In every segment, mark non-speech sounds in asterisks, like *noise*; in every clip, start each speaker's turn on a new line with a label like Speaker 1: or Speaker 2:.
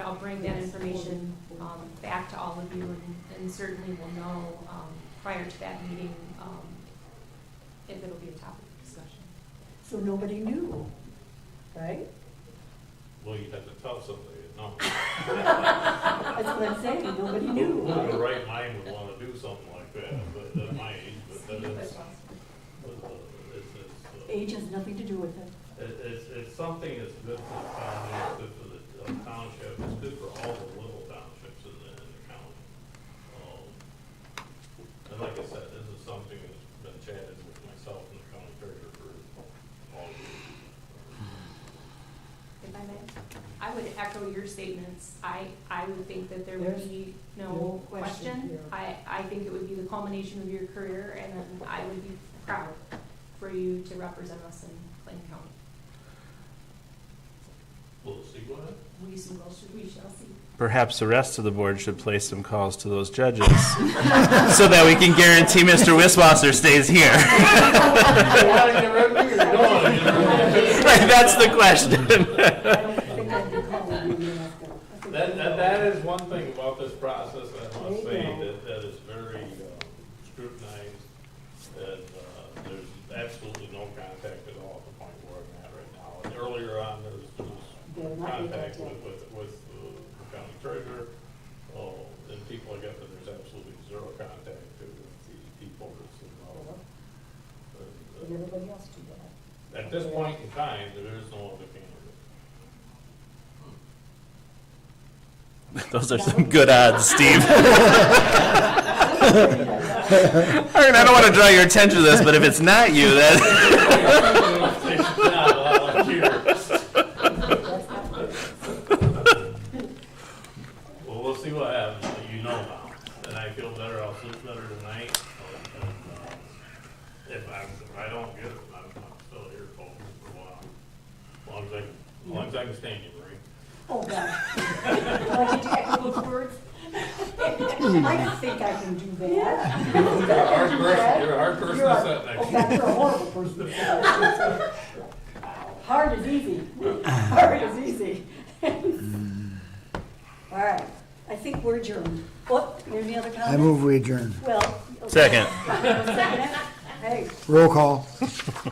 Speaker 1: I'll bring that information, um, back to all of you and, and certainly will know, um, prior to that meeting, um, if it'll be a topic of discussion.
Speaker 2: So nobody knew, right?
Speaker 3: Well, you'd have to tell somebody, no.
Speaker 2: That's what I'm saying, nobody
Speaker 3: Who
Speaker 2: knew.
Speaker 3: who in the right mind would wanna do something like that, but at my age, but that is, uh, it's, it's, uh,
Speaker 2: Age has nothing to do with it.
Speaker 3: It- It's, it's something that's good for the county, it's good for the uh, township, it's good for all the little townships in the, in the county. Um, And like I said, this is something that's been chatted with myself and the county treasurer for all years.
Speaker 1: If I may, I would echo your statements. I, I would think that there would
Speaker 2: There's
Speaker 1: be
Speaker 2: no
Speaker 1: no
Speaker 2: question
Speaker 1: question.
Speaker 2: here.
Speaker 1: I, I think it would be the culmination of your career, and then I would be proud for you to represent us in Plain County.
Speaker 3: We'll see what happens.
Speaker 1: We shall, we shall see.
Speaker 4: Perhaps the rest of the board should place some calls to those judges *laughs* so that we can guarantee Mr. Wiswasser stays here. *laughs* Like, that's the question. *laughs*
Speaker 2: I don't think I'd be calling you and asking. I
Speaker 3: *laughs*
Speaker 2: think
Speaker 3: That,
Speaker 2: you
Speaker 3: that,
Speaker 2: know.
Speaker 3: that is one thing about this process, I must
Speaker 2: There you
Speaker 3: say,
Speaker 2: go.
Speaker 3: that, that is very uh, scrutinized, and, uh, there's absolutely no contact at all at the point where I'm at right now. And earlier on, there was,
Speaker 2: There
Speaker 3: there was
Speaker 2: might be
Speaker 3: contact with,
Speaker 2: contact.
Speaker 3: with, with uh, the county treasurer, uh, and people, I guess, that there's absolutely zero contact with the people that's involved.
Speaker 2: Did
Speaker 3: And, uh,
Speaker 2: everybody else do that?
Speaker 3: At this point in time, there is no other
Speaker 2: *laughs*
Speaker 3: candidate.
Speaker 4: Those are some good odds, Steve. *laughs* Aaron, I don't want to draw your attention to this, but if it's not you, then. *laughs*
Speaker 3: It's not all here. Well, we'll see what happens, but you know now, and I feel better, I'll sleep better tonight, and, uh, if I, if I don't get it, I'm, I'm still here for a while. As long as I, as long as I can stand you, Marie.
Speaker 2: *laughs* Oh, God. Like the technical words? *laughs* I don't think I can do that.
Speaker 3: You're a hard person,
Speaker 2: you're
Speaker 3: a hard
Speaker 2: You're a- Oh, God, you're a horrible person. to say. *laughs* Hard is *laughs* easy. Hard is easy. All right, I think we're adjourned. What, any other comments?
Speaker 5: I move we adjourn.
Speaker 2: Well. okay.
Speaker 4: *laughs* Second.
Speaker 2: Hey,
Speaker 5: Roll call.
Speaker 6: Mr.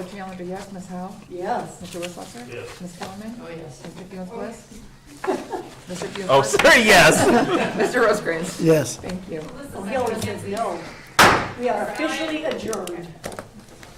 Speaker 6: Ogeander, yes. Ms. Howe?
Speaker 2: yes.
Speaker 6: Mr. Wisswasser?
Speaker 3: Yes.
Speaker 6: Ms. Kellerman? Oh, yes. Oh, Mr. Fields Bliss? *laughs* Mr. Fields
Speaker 4: Oh,
Speaker 6: Bliss?
Speaker 4: sorry, yes.
Speaker 6: Mr. Rosecrans?
Speaker 5: Yes.
Speaker 6: Thank you.
Speaker 2: Oh, he always says no. We are officially adjourned.